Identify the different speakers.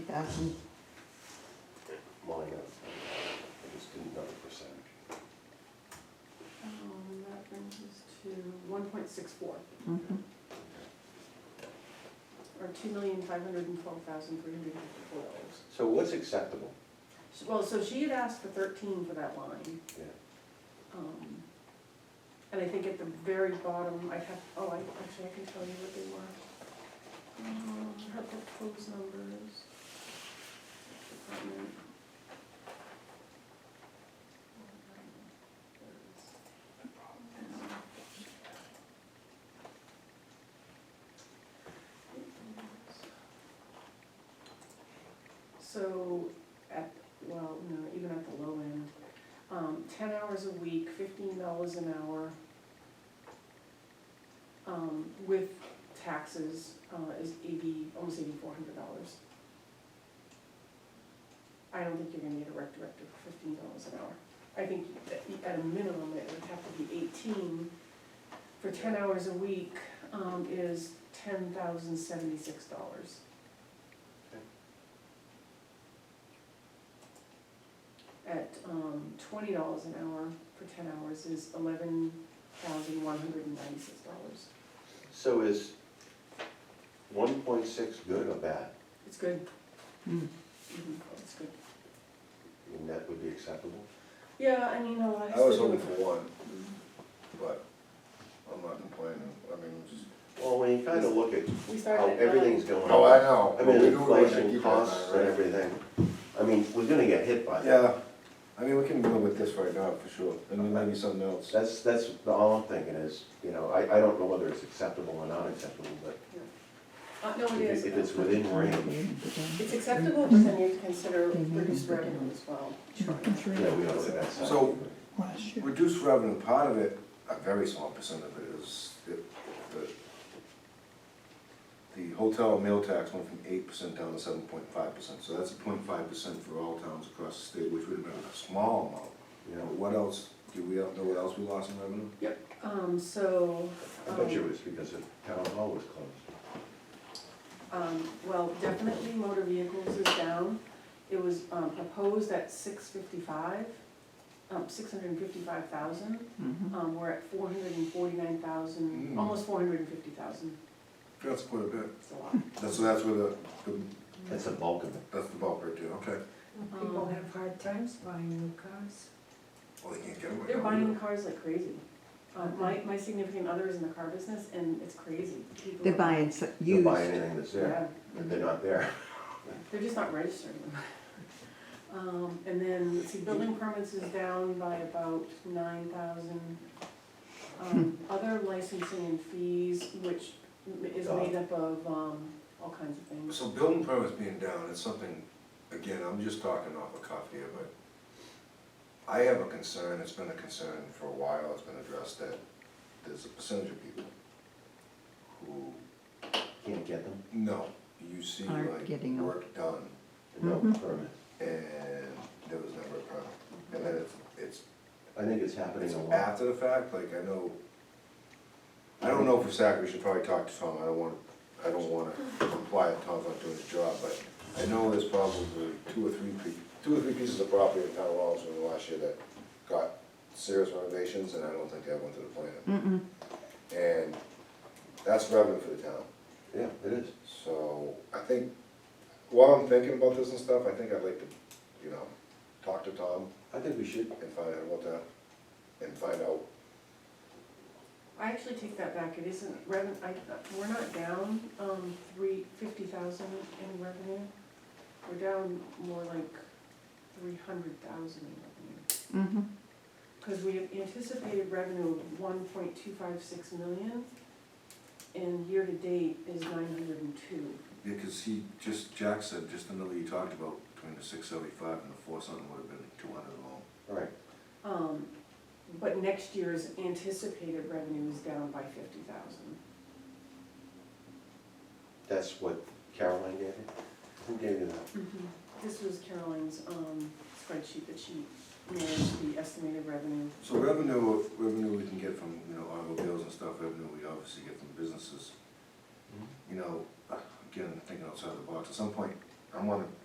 Speaker 1: thousand.
Speaker 2: Well, I got, I just didn't know the percentage.
Speaker 3: Um, that brings us to one point six four, or two million five hundred and twelve thousand three hundred and fifty-four dollars.
Speaker 2: So what's acceptable?
Speaker 3: Well, so she had asked for thirteen for that line.
Speaker 2: Yeah.
Speaker 3: Um, And I think at the very bottom, I have, oh, I, actually, I can tell you what they were. Um, Her proposed numbers. Department. So at, well, no, even at the low end, um, ten hours a week, fifteen dollars an hour, um, with taxes, uh, is eighty, almost eighty-four hundred dollars. I don't think you're gonna get a rec director for fifteen dollars an hour. I think that at a minimum, it would have to be eighteen. For ten hours a week, um, is ten thousand seventy-six dollars. at um, twenty dollars an hour for ten hours is eleven thousand one hundred and ninety-six dollars.
Speaker 2: So is one point six good or bad?
Speaker 3: It's good.
Speaker 1: Hmm.
Speaker 3: Mhm, It's good.
Speaker 2: I mean, that would be acceptable?
Speaker 3: Yeah, I mean, a lot of.
Speaker 4: I was hoping for one, but I'm not complaining, I mean, just.
Speaker 2: Well, when you kind of look at
Speaker 3: We
Speaker 2: how
Speaker 3: started at
Speaker 2: everything's
Speaker 3: nine.
Speaker 2: going on.
Speaker 4: No, Oh, I know.
Speaker 2: I mean,
Speaker 4: We do what we
Speaker 2: inflation,
Speaker 4: keep our eye
Speaker 2: costs
Speaker 4: on,
Speaker 2: and
Speaker 4: right?
Speaker 2: everything. I mean, we're gonna get hit by that.
Speaker 4: Yeah, I mean, we can deal with this right now, for sure, and then maybe something else.
Speaker 2: That's, that's, all I'm thinking is, you know, I, I don't know whether it's acceptable or not acceptable, but
Speaker 3: Uh, no, it
Speaker 2: if
Speaker 3: is.
Speaker 2: if it's within range,
Speaker 3: It's acceptable, but then you have to consider reduced revenue as well. Sure.
Speaker 2: yeah, we don't think that's.
Speaker 4: So-
Speaker 1: Last year.
Speaker 4: Reduced revenue, part of it, a very small percent of it is, it- the, the hotel and meal tax went from eight percent down to seven point five percent, so that's a point five percent for all towns across the state, which would have been a small amount.
Speaker 2: You
Speaker 4: Now,
Speaker 2: know,
Speaker 4: what else, do we know what else we lost in revenue?
Speaker 3: Um, so.
Speaker 2: I bet you
Speaker 3: um,
Speaker 2: it was because the town hall was closed.
Speaker 3: Um, well, definitely motor vehicles is down. It was, um, proposed at six fifty-five, um, six hundred and fifty-five thousand. Um, we're at four hundred and forty-nine thousand,
Speaker 4: Mm.
Speaker 3: almost four hundred and fifty thousand,
Speaker 4: That's quite a bit.
Speaker 3: it's a lot.
Speaker 4: That's, so that's where the, the-
Speaker 2: That's the bulk of it.
Speaker 4: that's the bulk right there, okay.
Speaker 3: People
Speaker 5: People
Speaker 3: have
Speaker 5: have hard times buying new cars.
Speaker 4: Well, they can't get away.
Speaker 3: They're
Speaker 4: with it.
Speaker 3: buying cars like crazy. Uh, my, my significant other is in the car business and it's crazy. People
Speaker 1: They're
Speaker 3: are-
Speaker 1: buying s-
Speaker 2: They'll
Speaker 1: used.
Speaker 2: buy anything that's there,
Speaker 3: Yeah,
Speaker 2: but they're not there.
Speaker 3: they're just not registering them. Um, and then, let's see, building permits is down by about nine thousand. Um, other licensing and fees, which m- is made up of, um, all kinds of things.
Speaker 4: So building permits being down, it's something, again, I'm just talking off the cuff here, but I have a concern, it's been a concern for a while, it's been addressed, that there's a percentage of people who,
Speaker 2: Can't get them,
Speaker 4: no, you see
Speaker 1: Aren't
Speaker 4: like
Speaker 1: getting 'em.
Speaker 4: work done,
Speaker 2: and no
Speaker 1: Mhm.
Speaker 2: permit.
Speaker 4: and there was never a permit. And then it's, it's
Speaker 2: I think it's happening
Speaker 4: It's
Speaker 2: a lot.
Speaker 4: after the fact, like, I know, I don't know for Zach, we should probably talk to Tom, I don't wanna, I don't wanna imply that Tom's not doing his job, but I know there's probably two or three, pe- two or three pieces of property in town halls in the last year that got serious renovations, and I don't think they went through the plan.
Speaker 1: Mm-mm.
Speaker 4: And that's revenue for the town,
Speaker 2: Yeah, it is.
Speaker 4: so I think, while I'm thinking about this and stuff, I think I'd like to, you know, talk to Tom
Speaker 2: I think we should,
Speaker 4: and find out what that, and find out
Speaker 3: I actually take that back, it isn't revenue, I, we're not down, um, three, fifty thousand in revenue. We're down more like three hundred thousand in revenue.
Speaker 1: Mm-hmm.
Speaker 3: Cause we have anticipated revenue of one point two five six million, and year-to-date is nine hundred and two.
Speaker 4: Yeah, because he, just, Jack said, just the number you talked about, between the six seventy-five and the four something would have been two hundred alone.
Speaker 2: all right.
Speaker 3: Um, but next year's anticipated revenue is down by fifty thousand.
Speaker 2: That's what Caroline gave you? Who gave you that?
Speaker 3: This was Caroline's, um, spreadsheet that she managed the estimated revenue
Speaker 4: So revenue, revenue we can get from, you know, automobiles and stuff, revenue we obviously get from businesses. You know, again, thinking outside the box, at some point, I wanna